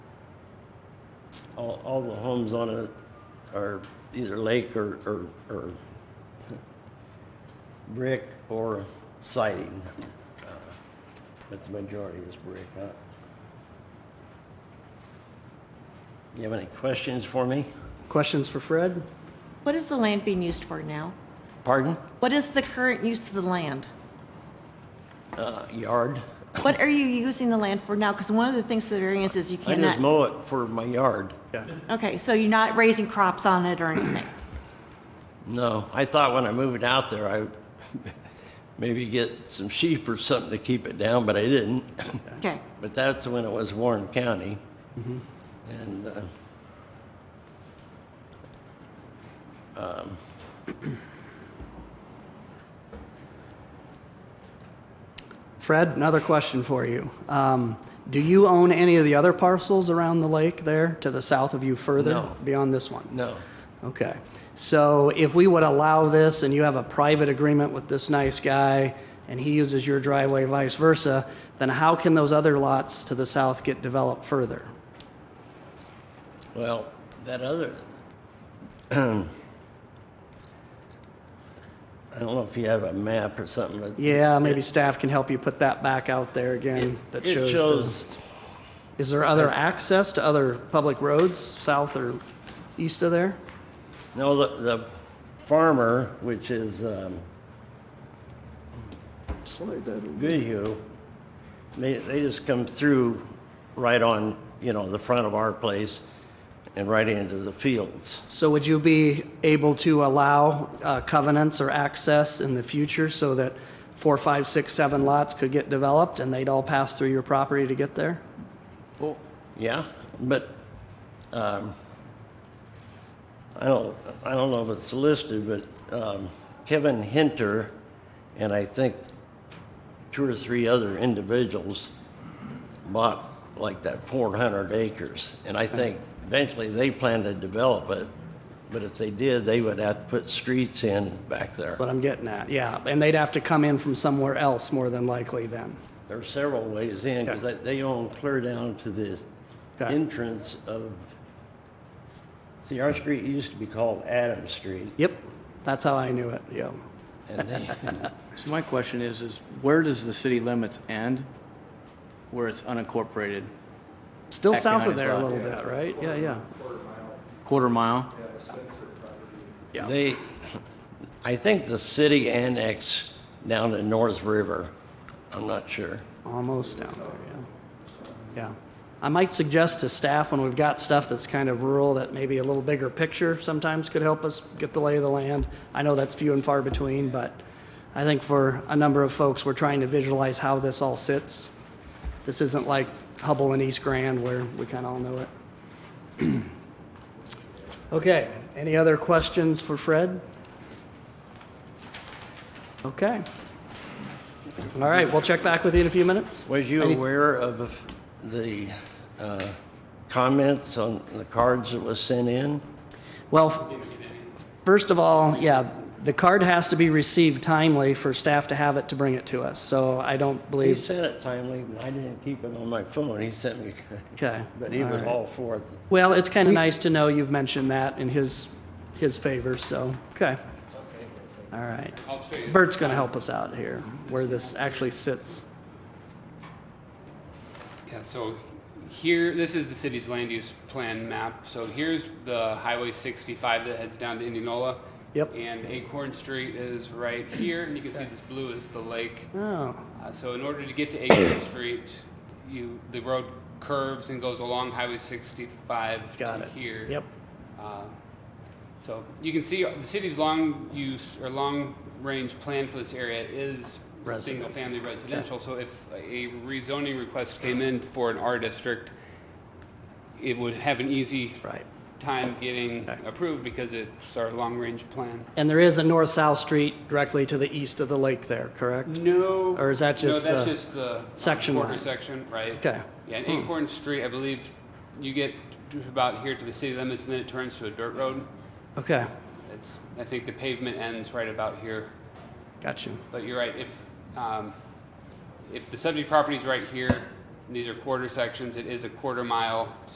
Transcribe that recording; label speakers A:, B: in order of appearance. A: all, all the homes on it are either lake or, or, or brick or siding. Uh, But the majority is brick, huh? You have any questions for me?
B: Questions for Fred?
C: What is the land being used for now?
A: Pardon?
C: What is the current use of the land?
A: Uh, yard?
C: What are you using the land for now? Because one of the things for the variance is you
A: I just
C: cannot.
A: mow it for my yard.
B: Yeah.
C: Okay, so you're not raising crops on it or anything?
A: No, I thought when I moved out there, I would maybe get some sheep or something to keep it down, but I didn't.
C: Okay,
A: But that's when it was Warren County.
B: Mm-hmm.
A: And, uh, um,
B: Fred, another question for you. Um, do you own any of the other parcels around the lake there to the south of you further
A: No.
B: beyond this one?
A: no,
B: Okay. So if we would allow this and you have a private agreement with this nice guy and he uses your driveway vice versa, then how can those other lots to the south get developed further?
A: well, that other, I don't know if you have a map or something, but.
B: Yeah, maybe staff can help you put that back out there again. That
A: It
B: the-
A: shows,
B: Is there other access to other public roads south or east of there?
A: no, the, the farmer, which is, um,
B: Slide that over.
A: Goodhue, they, they just come through right on, you know, the front of our place and right into the fields.
B: So would you be able to allow uh, covenants or access in the future so that four, five, six, seven lots could get developed and they'd all pass through your property to get there?
A: Yeah, but, um, I don't, I don't know if it's listed, but, um, Kevin Hinter and I think two or three other individuals bought like that four hundred acres. And I think eventually they plan to develop it, but if they did, they would have to put streets in back there.
B: What I'm getting at, yeah. And they'd have to come in from somewhere else more than likely then.
A: There are several ways in, because
B: Okay.
A: they own clear down to the
B: Okay.
A: entrance of, see, our street used to be called Adam Street,
B: Yep, that's how I knew it, yeah.
A: and they,
D: So my question is, is where does the city limits end? Where it's unincorporated,
B: Still
D: Back
B: south
D: behind
B: of
D: his
B: there a
D: lot,
B: little bit, right? Yeah, yeah.
D: quarter mile?
B: Yeah.
A: they, I think the city annexed down to North River. I'm not sure.
B: Almost down there, yeah. Yeah. I might suggest to staff, when we've got stuff that's kind of rural, that maybe a little bigger picture sometimes could help us get the lay of the land. I know that's few and far between, but I think for a number of folks, we're trying to visualize how this all sits. This isn't like Hubble and East Grand where we kind of all know it. Okay, any other questions for Fred? Okay. All right, we'll check back with you in a few minutes.
A: Was you
B: Any-
A: aware of the uh, comments on the cards that was sent in?
B: Well, f- first of all, yeah, the card has to be received timely for staff to have it to bring it to us, so I don't
A: He
B: believe,
A: sent it timely, and I didn't keep it on my phone. He sent me,
B: okay.
A: but he
B: all
A: was
B: right.
A: all for it.
B: Well, it's kind of nice to know you've mentioned that in his, his favor, so, okay. All right. Bert's going to help us out here, where this actually sits.
E: Yeah, so here, this is the city's land use plan map. So here's the Highway 65 that heads down to Indianola.
B: Yep.
E: And Acorn Street is right here, and you can see this blue is the lake.
B: Oh,
E: Uh, so in order to get to Acorn Street, you, the road curves and goes along Highway 65
B: got
E: to
B: it.
E: here.
B: Yep,
E: Um, So you can see the city's long use or long range plan for this area is single family residential. So if a rezoning request came in for an R district, it would have an easy
B: right.
E: time getting
B: Okay.
E: approved because it's our long range plan.
B: And there is a north-south street directly to the east of the lake there, correct?
E: No.
B: Or is that just
E: No, that's
B: the
E: just the um,
B: section
E: quarter
B: line?
E: section, right?
B: Okay. Hmm.
E: Yeah, and Acorn Street, I believe you get to about here to the city limits and then it turns to a dirt road.
B: Okay,
E: It's, I think the pavement ends right about here.
B: got you.
E: But you're right, if, um, if the subject property is right here, and these are quarter sections, it is a quarter mile